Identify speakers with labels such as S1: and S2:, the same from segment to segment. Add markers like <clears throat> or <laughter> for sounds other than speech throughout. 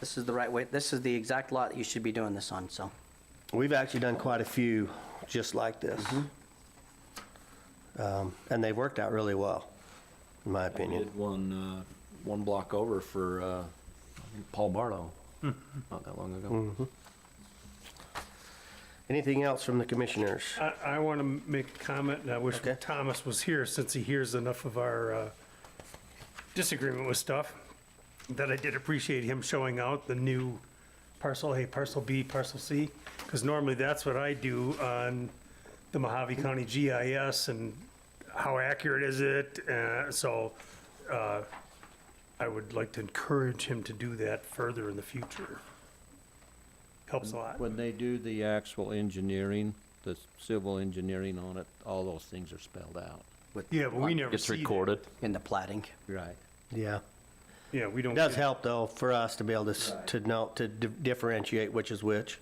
S1: This is the right way, this is the exact lot that you should be doing this on, so.
S2: We've actually done quite a few just like this. Um, And they've worked out really well, in my
S3: We
S2: opinion.
S3: did one, uh, one block over for, uh, I think Paul
S4: <laughs>
S3: Barlow, not that long ago.
S2: Anything else from the commissioners?
S5: I, I want to make a comment, and I wish
S2: Okay.
S5: Thomas was here, since he hears enough of our uh, disagreement with stuff, that I did appreciate him showing out the new parcel A, parcel B, parcel C, because normally that's what I do on the Mojave County GIS, and how accurate is it? Uh, So uh, I would like to encourage him to do that further in the future. Helps a lot.
S4: When they do the actual engineering, the civil engineering on it, all those things are spelled out.
S5: Yeah, but we never
S3: It's
S5: see that.
S3: recorded.
S1: In the plating.
S4: Right.
S2: Yeah.
S5: Yeah, we don't.
S2: It does
S5: get-
S2: help, though, for us to be able to, s- to know, to di- differentiate which is which.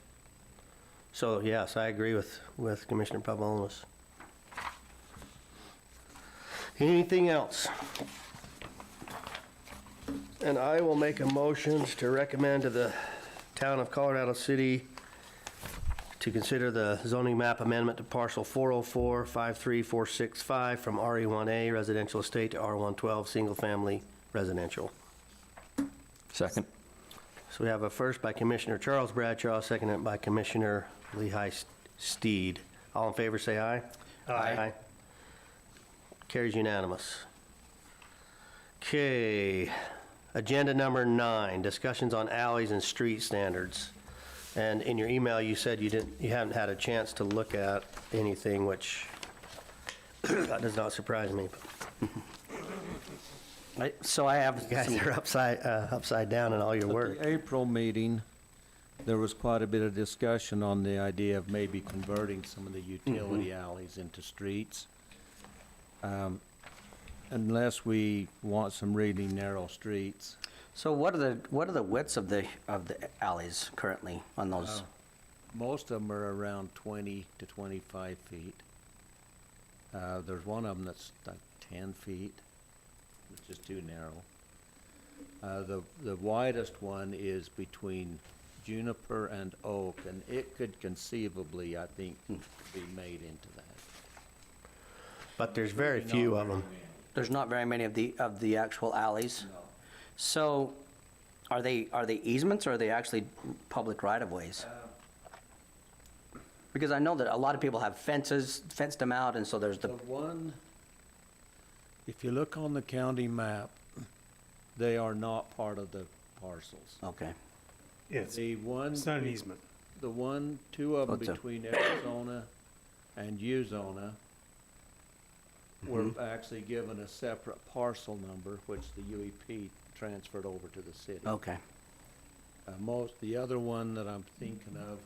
S2: So, yes, I agree with, with Commissioner Pavulonis. Anything else? And I will make a motion to recommend to the town of Colorado City to consider the zoning map amendment to parcel 404-53465 from RE1A residential estate to R112 single-family residential.
S3: Second.
S2: So we have a first by Commissioner Charles Bradshaw, seconded by Commissioner Lehigh Steed. All in favor, say aye. Carries unanimous. Okay, agenda number nine, discussions on alleys and street standards. And in your email, you said you didn't, you haven't had a chance to look at anything, which <clears throat> that does not surprise me.
S1: Right, So I have
S2: <laughs> You guys
S1: some
S2: are upside, uh, upside down in all your
S4: At
S2: work.
S4: the April meeting, there was quite a bit of discussion on the idea of maybe converting some of the utility alleys into streets. Um, Unless we want some really narrow streets.
S1: So what are the, what are the widths of the, of the alleys currently on those?
S5: Oh.
S4: Most of them are around twenty to twenty-five feet. Uh, there's one of them that's like ten feet, which is too narrow. Uh, the, the widest one is between juniper and oak, and it could conceivably, I think,
S2: Hmm.
S4: be made into that.
S2: But there's very few of them.
S1: There's not very many of the, of the actual alleys? So are they, are they easements or are they actually public right-of-ways?
S5: Uh,
S1: Because I know that a lot of people have fences, fenced them out, and so there's
S4: The
S1: the,
S4: one, if you look on the county map, they are not part of the parcels.
S1: okay.
S5: Yeah, it's-
S4: The one.
S5: It's not an
S4: be-
S5: easement.
S4: The one, two of them
S1: What's up?
S4: between Arizona and Uzona were
S1: Mm-hmm.
S4: actually given a separate parcel number, which the UEP transferred over to the city.
S1: Okay.
S4: Uh, Most, the other one that I'm thinking of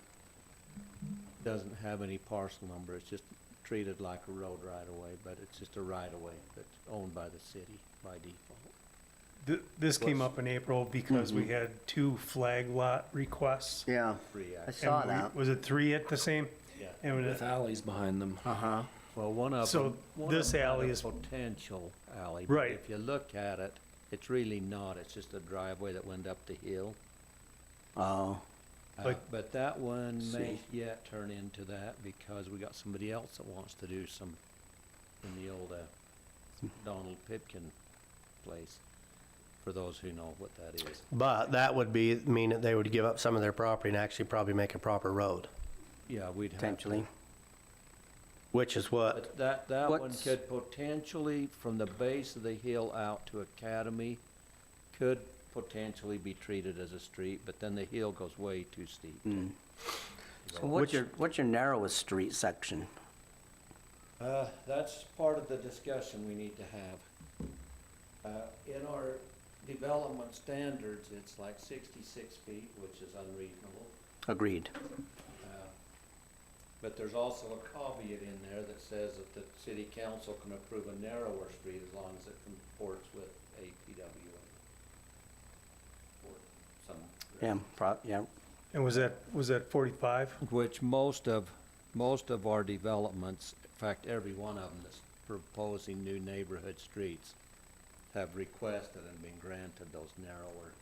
S4: doesn't have any parcel number. It's just treated like a road right away, but it's just a right away that's owned by the city by default.
S5: Th- This came up in April because
S4: Mm-hmm.
S5: we had two flag lot requests.
S1: Yeah.
S4: Free
S1: I
S4: access.
S5: And
S1: saw
S5: we-
S1: that.
S5: Was it three at the same?
S4: Yeah.
S5: And
S3: With
S5: it-
S3: alleys behind them.
S1: Uh-huh.
S4: Well, one of
S5: So
S4: them. one
S5: this
S4: of 'em had
S5: alley
S4: a
S5: is-
S4: Potential alley. but
S5: Right.
S4: If you look at it, it's really not, it's just a driveway that went up the hill.
S1: Oh,
S4: Uh,
S5: Like-
S4: But that one may
S1: See.
S4: yet turn into that because we got somebody else that wants to do some, in the old uh, Donald Pipkin place, for those who know what that is.
S2: But that would be, mean that they would give up some of their property and actually probably make a proper road,
S4: Yeah, we'd have. to-
S1: potentially.
S2: which is what,
S4: But that, that one
S1: What's-
S4: could potentially, from the base of the hill out to Academy, could potentially be treated as a street, but then the hill goes way too steep.
S1: So what's
S2: Which-
S1: your, what's your narrowest street section?
S4: Uh, that's part of the discussion we need to have. Uh, in our development standards, it's like sixty-six feet, which is unreasonable.
S1: Agreed.
S4: But there's also a caveat in there that says that the city council can approve a narrower street as long as it comports with APWA. Or some.
S1: Yeah, pro, yeah.
S5: And was that, was that 45?
S4: Which most of, most of our developments, in fact, every one of them that's proposing new neighborhood streets have requested and been granted those narrower